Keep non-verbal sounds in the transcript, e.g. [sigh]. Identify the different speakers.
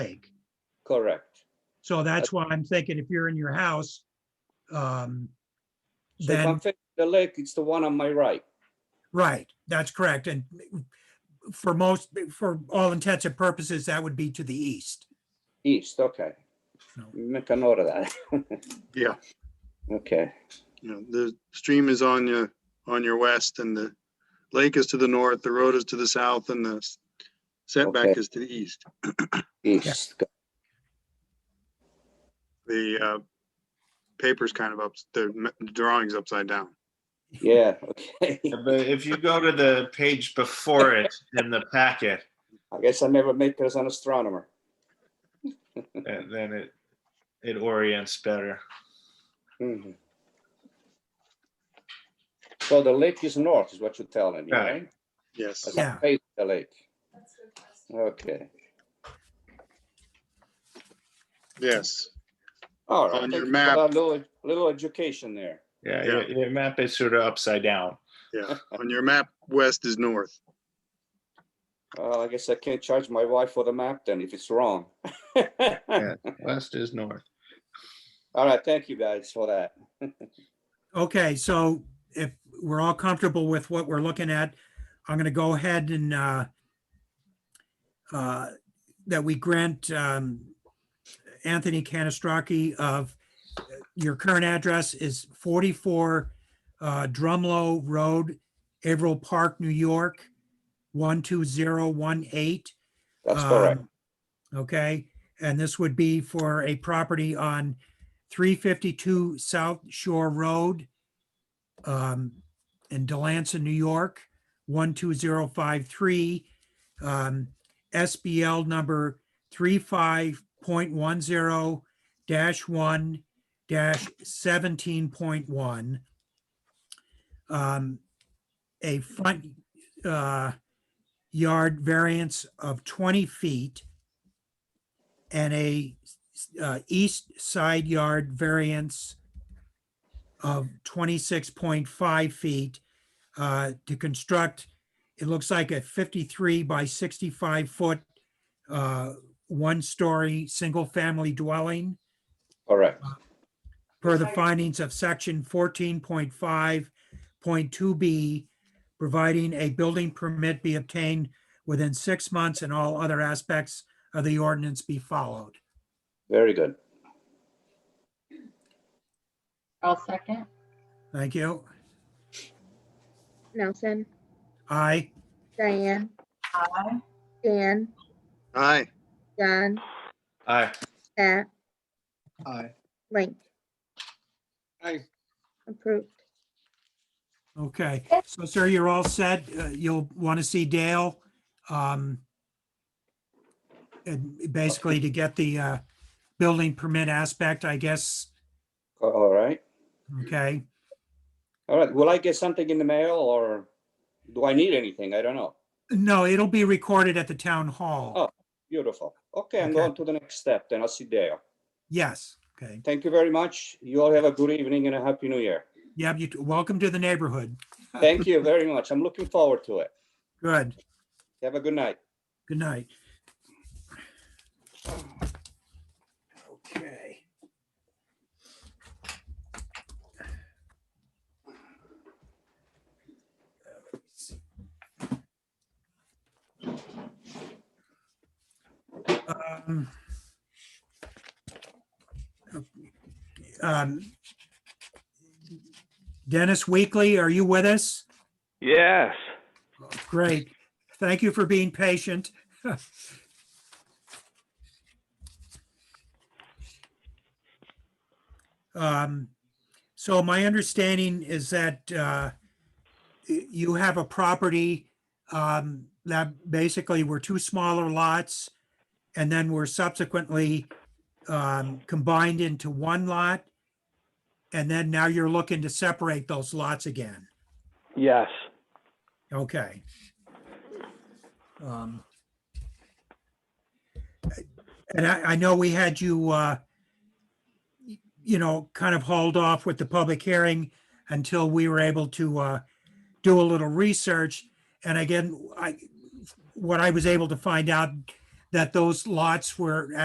Speaker 1: lake.
Speaker 2: Correct.
Speaker 1: So that's why I'm thinking if you're in your house, um,
Speaker 2: So if
Speaker 1: Then-
Speaker 2: I'm facing the lake, it's the one on my right.
Speaker 1: right, that's correct. And for most, for all intents and purposes, that would be to the east.
Speaker 2: East, okay.
Speaker 1: No.
Speaker 2: Make a note of that. [laughs]
Speaker 3: Yeah.
Speaker 2: Okay,
Speaker 3: You know, the stream is on your, on your west and the lake is to the north, the road is to the south and the s- setback
Speaker 2: Okay.
Speaker 3: is to the east.
Speaker 2: east. Go-
Speaker 3: The uh, paper's kind of up, the m- drawing's upside down.
Speaker 2: Yeah, okay. [laughs]
Speaker 4: But if you go to the page before it in the packet,
Speaker 2: I guess I never make it as an astronomer.
Speaker 4: uh, then it, it orients better.
Speaker 2: Mhm. So the lake is north, is what you're telling me,
Speaker 4: Right.
Speaker 2: right?
Speaker 3: Yes.
Speaker 2: As
Speaker 1: Yeah.
Speaker 2: I'm facing the lake. Okay,
Speaker 3: Yes.
Speaker 2: all right.
Speaker 3: On
Speaker 2: Thank
Speaker 3: your
Speaker 2: you for
Speaker 3: map.
Speaker 2: that Little, little education there.
Speaker 4: Yeah, your, your map is sort of upside down.
Speaker 3: Yeah. On your map, west is north.
Speaker 2: Well, I guess I can't charge my wife for the map then if it's wrong. [laughs]
Speaker 4: West is north.
Speaker 2: All right, thank you guys for that.
Speaker 1: Okay, so if we're all comfortable with what we're looking at, I'm gonna go ahead and uh, uh, that we grant um, Anthony Canastrocki of, your current address is 44 uh, Drumlow Road, Averill Park, New York, 12018.
Speaker 2: That's correct.
Speaker 1: Um, Okay, and this would be for a property on three fifty-two South Shore Road um, in Delancey, New York, one two zero five three. um, SBL number three five point one zero dash one dash seventeen point one. Um, A front, uh, yard variance of 20 feet and a uh, east side yard variance of 26.5 feet uh, to construct, it looks like a 53 by 65 foot, uh, one-story, single-family dwelling
Speaker 2: Correct.
Speaker 1: per the findings of section fourteen point five point two B, providing a building permit be obtained within six months and all other aspects of the ordinance be followed.
Speaker 2: Very good.
Speaker 5: I'll second.
Speaker 1: Thank you.
Speaker 6: Nelson,
Speaker 1: Aye.
Speaker 6: Diane,
Speaker 5: Aye.
Speaker 6: Dan,
Speaker 3: Aye.
Speaker 6: John,
Speaker 4: Aye.
Speaker 6: Pat,
Speaker 3: Aye.
Speaker 6: Link.
Speaker 3: Aye.
Speaker 6: Approved.
Speaker 1: Okay, so sir, you're all set. Uh, You'll want to see Dale. um, And basically to get the uh, building permit aspect, I guess,
Speaker 2: A- All right.
Speaker 1: okay?
Speaker 2: All right. Will I get something in the mail or do I need anything? I don't know.
Speaker 1: No, it'll be recorded at the town hall.
Speaker 2: Oh. Beautiful. Okay, I'm
Speaker 1: Okay.
Speaker 2: going to the next step, then I'll see Dale.
Speaker 1: Yes, okay.
Speaker 2: Thank you very much. You all have a good evening and a happy new year.
Speaker 1: Yeah, you, welcome to the neighborhood.
Speaker 2: Thank you very much. I'm looking forward to it.
Speaker 1: Good,
Speaker 2: Have a good night.
Speaker 1: good night. Okay. Um, um, Dennis Weekly, are you with us?
Speaker 7: Yes.
Speaker 1: Great. Thank you for being patient. [laughs] Um, So my understanding is that uh, y- you have a property um, that basically were two smaller lots and then were subsequently um, combined into one lot. And then now you're looking to separate those lots again.
Speaker 7: Yes.
Speaker 1: Okay. Um, And I, I know we had you, uh, y- you know, kind of hauled off with the public hearing until we were able to uh, do a little research. And again, I, what I was able to find out, that those lots were